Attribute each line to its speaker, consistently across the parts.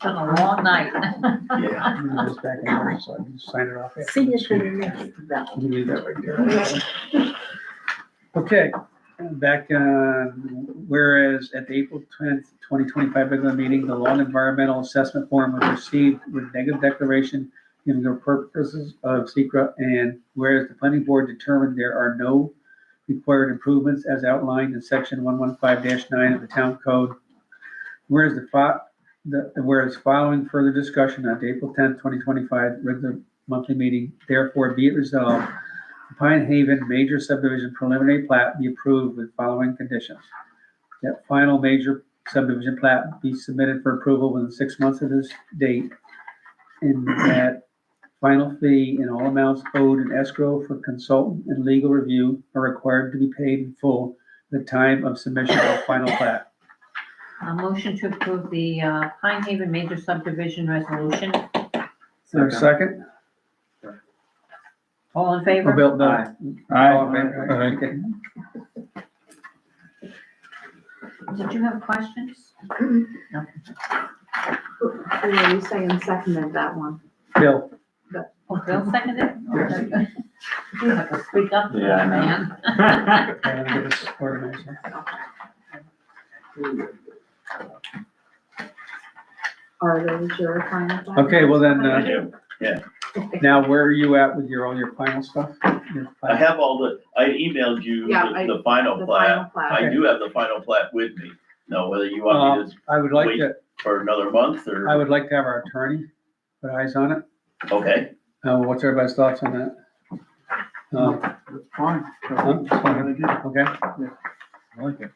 Speaker 1: been a long night.
Speaker 2: Yeah.
Speaker 3: I'm gonna just back it up, so I can just sign it off. after.
Speaker 4: Signature next to that.
Speaker 3: You need that right there. Okay, back, uh, whereas at the April tenth, twenty twenty-five regular meeting, the lawn environmental assessment form was received with negative declaration in the purposes of secra, and whereas the planning board determined there are no required improvements as outlined in section one one five nine of the town code. Whereas the fo- the, whereas following further discussion on April tenth, twenty twenty-five, regular monthly meeting, therefore be it resolved, the Pine Haven major subdivision preliminary plat be approved with following conditions. That final major subdivision plat be submitted for approval within six months of this date. And that final fee and all amounts owed in escrow for consultant and legal review are required to be paid in full at the time of submission of final plat.
Speaker 1: A motion to approve the uh, Pine Haven major subdivision resolution.
Speaker 3: Is there a second?
Speaker 1: All in
Speaker 3: Oh,
Speaker 1: favor?
Speaker 3: Bill, no.
Speaker 2: Aye.
Speaker 3: All in favor?
Speaker 2: Aye.
Speaker 3: Okay.
Speaker 1: Did you have questions?
Speaker 4: Yeah, you say and seconded that one.
Speaker 3: Bill,
Speaker 1: Oh, Bill seconded it? Oh,
Speaker 3: Yes.
Speaker 1: very good. You have to speak up,
Speaker 2: Yeah, I know.
Speaker 1: man.
Speaker 3: I'm gonna get this organized here.
Speaker 4: Are those your final? thoughts?
Speaker 3: Okay, well then, uh,
Speaker 4: Okay.
Speaker 3: Now, where are you at with your, all your final stuff? Your
Speaker 5: I
Speaker 3: final-
Speaker 5: have all the, I emailed you
Speaker 4: Yeah,
Speaker 5: the
Speaker 4: I-
Speaker 5: the final
Speaker 4: The
Speaker 5: plat.
Speaker 4: final plat.
Speaker 5: I do have the final plat with me. Now, whether you want me to,
Speaker 3: I would like to,
Speaker 5: for another month
Speaker 3: I
Speaker 5: or,
Speaker 3: would like to have our attorney put eyes on it.
Speaker 5: okay,
Speaker 3: Uh, what's everybody's thoughts on that? Uh,
Speaker 2: That's fine.
Speaker 3: Huh?
Speaker 2: That's fine.
Speaker 3: okay,
Speaker 2: I like it.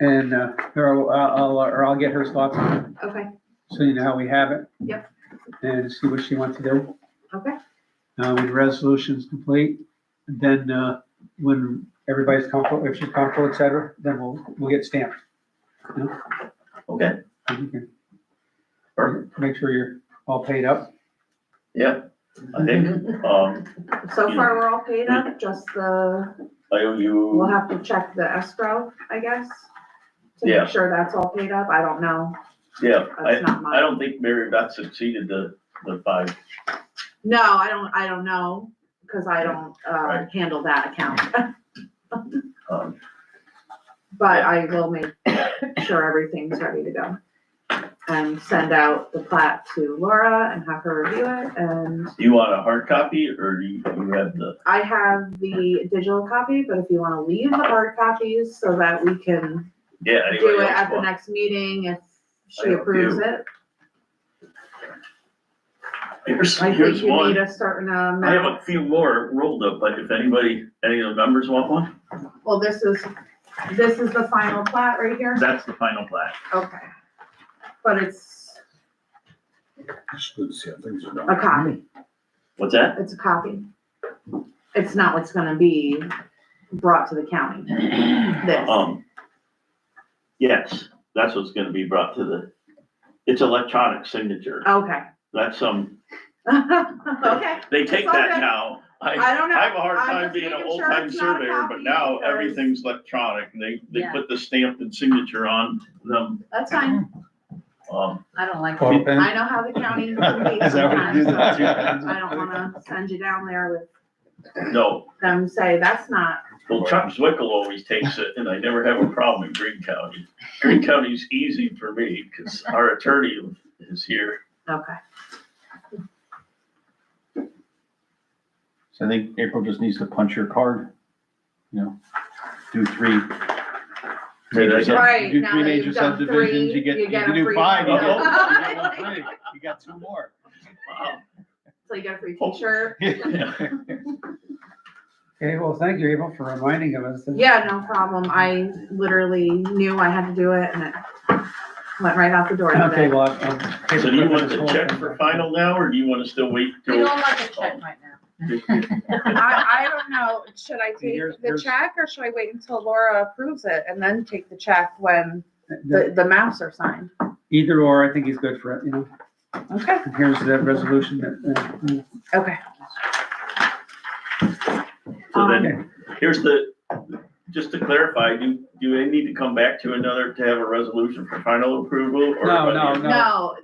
Speaker 3: and, uh, or I'll, or I'll get her thoughts on it,
Speaker 4: Okay,
Speaker 3: so you know how we have it.
Speaker 4: Yep.
Speaker 3: And see what she wants to do.
Speaker 4: okay,
Speaker 3: Uh, when the resolution's complete, then, uh, when everybody's comfortable, if she's comfortable, et cetera, then we'll, we'll get stamped.
Speaker 5: okay,
Speaker 3: And you can
Speaker 5: perfect,
Speaker 3: Make sure you're all paid up.
Speaker 5: yeah. I think, um,
Speaker 4: so far we're all paid up, just the,
Speaker 5: I owe
Speaker 4: we'll
Speaker 5: you,
Speaker 4: have to check the escrow, I guess. To
Speaker 5: Yeah.
Speaker 4: make sure that's all paid up, I don't know,
Speaker 5: yeah, I,
Speaker 4: that's not
Speaker 5: I
Speaker 4: my,
Speaker 5: don't think Mary Beth succeeded the, the five,
Speaker 4: no, I don't, I don't know, cause I don't, uh,
Speaker 5: Right.
Speaker 4: handle that account.
Speaker 5: um,
Speaker 4: But I will make sure everything's ready to go. And send out the plat to Laura and have her review it, and
Speaker 5: do you want a hard copy or do you, you have the,
Speaker 4: I have the digital copy, but if you wanna leave the hard copies so that we can
Speaker 5: yeah, anybody
Speaker 4: do it
Speaker 5: else
Speaker 4: at the
Speaker 5: want?
Speaker 4: next meeting if
Speaker 5: I
Speaker 4: she
Speaker 5: have a
Speaker 4: approves
Speaker 5: few.
Speaker 4: it.
Speaker 5: Here's,
Speaker 4: I think
Speaker 5: here's
Speaker 4: you need
Speaker 5: one.
Speaker 4: a certain uh,
Speaker 5: I have
Speaker 4: amount,
Speaker 5: a few more rolled up, but if anybody, any of the members want one,
Speaker 4: well, this is, this is the final plat right here,
Speaker 5: that's the final plat.
Speaker 4: okay. But it's
Speaker 2: It's good to see how things are
Speaker 4: a
Speaker 2: done.
Speaker 4: copy,
Speaker 5: What's that?
Speaker 4: it's a copy. It's not what's gonna be brought to the county, this.
Speaker 5: Um, yes, that's what's gonna be brought to the, it's electronic signature.
Speaker 4: Okay.
Speaker 5: That's, um,
Speaker 4: Okay.
Speaker 5: they take
Speaker 4: It's
Speaker 5: that
Speaker 4: okay.
Speaker 5: now. I,
Speaker 4: I don't know.
Speaker 5: I have a hard
Speaker 4: I'm
Speaker 5: time
Speaker 4: just
Speaker 5: being an
Speaker 4: making
Speaker 5: old
Speaker 4: sure
Speaker 5: time
Speaker 4: it's not a
Speaker 5: surveyor, but
Speaker 4: copy
Speaker 5: now
Speaker 4: because-
Speaker 5: everything's electronic. They, they
Speaker 1: Yeah.
Speaker 5: put the stamp and signature on them.
Speaker 4: That's fine.
Speaker 5: Um,
Speaker 1: I don't like it.
Speaker 6: Ball pen?
Speaker 4: I know how the county can be
Speaker 6: Is that what you
Speaker 4: sometimes.
Speaker 6: do?
Speaker 4: so
Speaker 6: that?
Speaker 4: I don't wanna send you down there with
Speaker 5: no,
Speaker 4: them say, that's not,
Speaker 5: well Chuck Zwickel always takes it and I never have a problem in Green County. Green County's easy for me because our attorney is here.
Speaker 4: okay.
Speaker 6: So I think April just needs to punch your card, you know, do three.
Speaker 5: Say that again.
Speaker 4: Right,
Speaker 6: Do
Speaker 4: now
Speaker 6: three
Speaker 4: that
Speaker 6: major
Speaker 4: you've done
Speaker 6: subdivisions,
Speaker 4: three,
Speaker 6: you get,
Speaker 4: you
Speaker 6: you
Speaker 4: get
Speaker 6: can
Speaker 4: a
Speaker 6: do
Speaker 4: free
Speaker 6: five, you
Speaker 5: one.
Speaker 6: get, you get one free. you got two more.
Speaker 5: Wow.
Speaker 4: So you get a free
Speaker 5: Oh.
Speaker 4: t-shirt.
Speaker 3: Okay, well, thank you, Abel, for reminding of us. that-
Speaker 4: Yeah, no problem. I literally knew I had to do it and it went right out the door.
Speaker 3: Okay,
Speaker 4: today.
Speaker 3: well, i
Speaker 5: So do you want the check for final now or do you want to still wait?
Speaker 1: We
Speaker 5: till-
Speaker 1: don't like a check right now.
Speaker 7: I, I don't know, should I take
Speaker 3: Here's-
Speaker 7: the
Speaker 3: here's-
Speaker 7: check or should I wait until Laura approves it and then take the check when the, the maps are signed?
Speaker 3: Either or, I think he's good for it, you know,
Speaker 7: Okay,
Speaker 3: and here's that resolution that, uh,
Speaker 7: okay.
Speaker 5: So
Speaker 4: Um,
Speaker 5: then, here's the, just to clarify, do, do I need to come back to another to have a resolution for final approval? or by
Speaker 3: No,
Speaker 5: the
Speaker 3: no,
Speaker 5: end?
Speaker 3: no.
Speaker 4: No,